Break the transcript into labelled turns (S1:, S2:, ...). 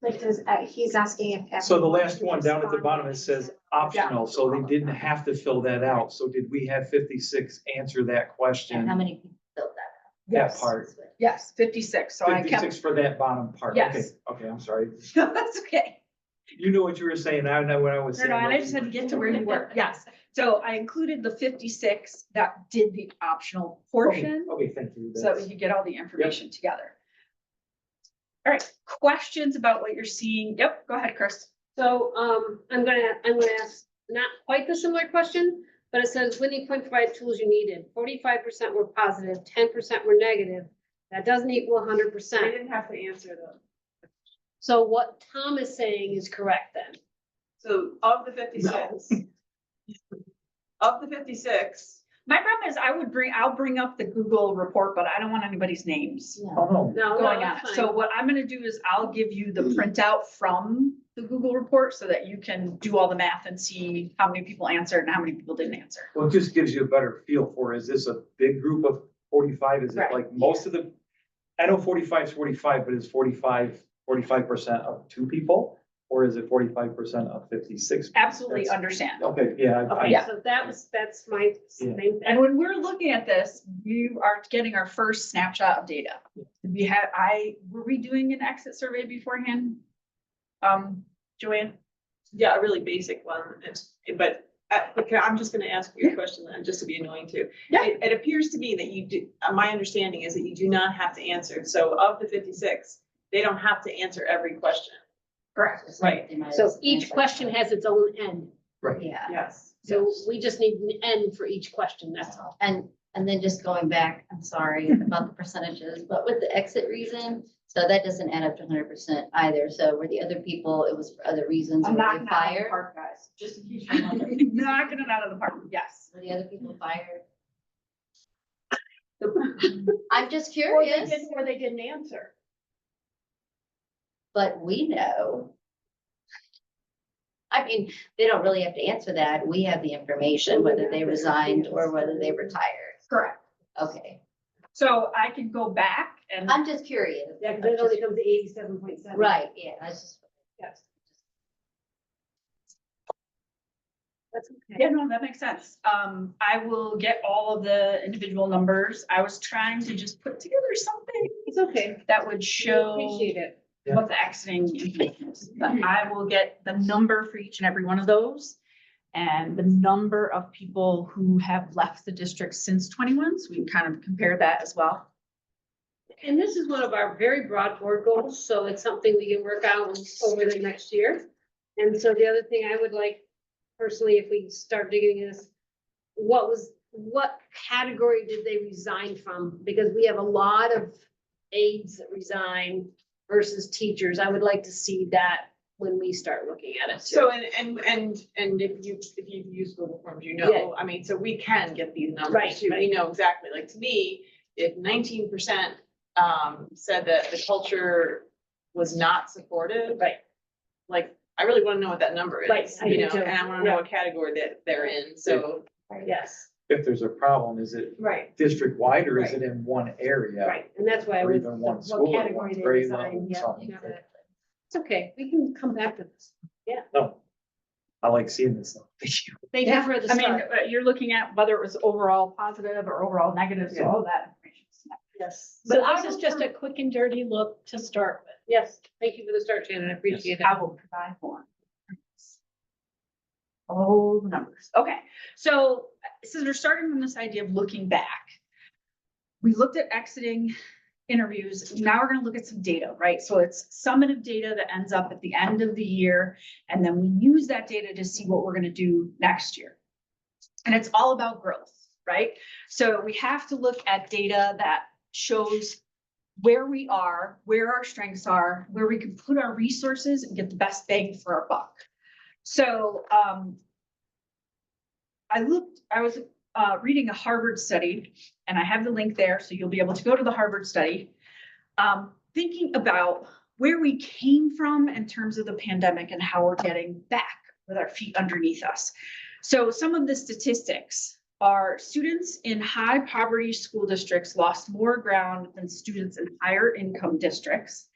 S1: Like, does, uh, he's asking if.
S2: So the
S1: everyone
S2: last
S1: who
S2: one down at the
S1: responded-
S2: bottom, it says optional, so they didn't have to fill that out. So did we have fifty-six answer that
S3: And how
S2: question?
S3: many people filled
S2: That
S3: that?
S4: Yes,
S2: part,
S4: yes, fifty-six, so I kept,
S2: fifty-six for that bottom part. Okay,
S4: Yes.
S2: okay, I'm sorry.
S4: that's okay.
S2: You knew what you were saying. I know what I was
S4: No,
S2: saying.
S4: no, and I just had to get to where you were, yes. So I included the fifty-six that did the optional portion,
S2: Oh, Okay, thank you.
S4: so that
S2: That's-
S4: you get all the information together. All right, questions about what you're seeing? Yep, go ahead, Chris.
S5: So, um, I'm gonna, I'm gonna ask not quite the similar question, but it says Whitney Point provided tools you needed. Forty-five percent were positive, ten percent were negative. That doesn't equal hundred
S6: I
S5: percent.
S6: didn't have to answer them.
S5: So what Tom is saying is correct then.
S6: So of the fifty-six. Of the fifty-six,
S4: My problem is I would bring, I'll bring up the Google report, but I don't want anybody's names
S3: Yeah.
S2: Oh, no.
S5: No, no,
S4: going on.
S5: it's
S4: it.
S5: fine.
S4: So what I'm gonna do is I'll give you the printout from the Google report so that you can do all the math and see how many people answered and how many people didn't answer.
S2: Well, it just gives you a better feel for, is this a big group of forty-five? Is it
S4: Right.
S2: like most of the, I know 45 is forty-five, but is 45 45 percent of two people? Or is it forty-five percent of fifty-six?
S4: Absolutely
S2: That's-
S4: understand.
S2: Okay, yeah. I- I-
S5: Okay, so that was, that's my
S2: Yeah.
S5: same thing.
S4: And when we're looking at this, we are getting our first snapshot of data. We had, I, were we doing an exit survey beforehand? Um, Joanne?
S6: yeah, a really basic one, it's, but, uh, okay, I'm just gonna ask you a question then, just to be annoying too.
S4: Yeah.
S6: It, it appears to me that you do, uh, my understanding is that you do not have to answer, so of the fifty-six, they don't have to answer every question.
S4: Correct.
S6: Right.
S5: So each question has its own end.
S3: Yeah.
S6: Yes.
S5: So we just need an end for each question, that's all.
S3: And, and then just going back, I'm sorry about the percentages, but with the exit reason, so that doesn't add up to hundred percent either. So were the other people, it was for other reasons, were
S4: I'm
S3: they
S4: knocking it out of the
S3: fired?
S4: park, guys, just in case you're wondering. Knocking
S3: Knocking
S4: it out of the park, yes.
S3: Were the other people fired?
S4: Or
S3: I'm just
S4: they
S3: curious,
S4: didn't, or they didn't answer.
S3: but we know. I mean, they don't really have to answer that. We have the information, whether they resigned or whether they retired.
S4: Correct.
S3: Okay,
S4: So I can go back and,
S3: I'm just curious.
S5: Yeah, because it only comes to eighty-seven point seven.
S3: Right, yeah, that's just.
S5: Yes. That's okay.
S4: yeah, no, that makes sense. Um, I will get all of the individual numbers. I was trying to just put together something
S5: It's okay.
S4: that would show.
S5: Appreciate it.
S2: Yeah.
S4: what the exiting information is. But I will get the number for each and every one of those. And the number of people who have left the district since twenty-one, so we can kind of compare that as well.
S5: And this is one of our very broad board goals, so it's something we can work out over the next year. And so the other thing I would like personally, if we start digging is, what was, what category did they resign from? Because we have a lot of aides that resign versus teachers. I would like to see that when we start looking at it. too.
S6: So, and, and, and, and if you, if you've used Google Forms, you
S5: Yeah.
S6: know, I mean, so we can get these
S5: Right,
S6: numbers too, we know exactly, like, to me, if nineteen percent um, said that the culture was not supportive.
S5: Right.
S6: Like, I really wanna know what that number
S5: Right,
S6: is,
S5: I
S6: you
S5: do
S6: know,
S5: too.
S6: and I wanna know what category that they're in, so.
S5: Yes,
S2: If there's a problem, is it
S6: Right.
S2: district-wide or is it in one area?
S5: right. And that's why I
S2: Or
S5: would,
S2: even one
S5: what
S2: school, or
S5: category
S2: one
S5: they
S2: grade
S5: resign.
S2: level,
S5: Yeah,
S2: something.
S5: exactly. It's okay. We can come back to this.
S2: No, I like seeing this. stuff.
S5: Thank you
S4: Yeah,
S5: for the
S4: I mean,
S5: start.
S4: uh, you're looking at whether it was overall positive or overall negative, so all that information.
S5: Yes.
S4: So I will
S5: a quick and dirty look to start with. Yes, thank you for the start, Shannon, I appreciate it.
S4: I will provide more. All the numbers. Okay, so since we're starting from this idea of looking back, we looked at exiting interviews. Now we're gonna look at some data, right? So it's summative data that ends up at the end of the year, and then we use that data to see what we're gonna do next year. And it's all about growth, right? So we have to look at data that shows where we are, where our strengths are, where we can put our resources and get the best bang for our buck. So, um, I looked, I was, uh, reading a Harvard study and I have the link there, so you'll be able to go to the Harvard study. Um, thinking about where we came from in terms of the pandemic and how we're getting back with our feet underneath us. So some of the statistics are students in high poverty school districts lost more ground than students in higher income districts.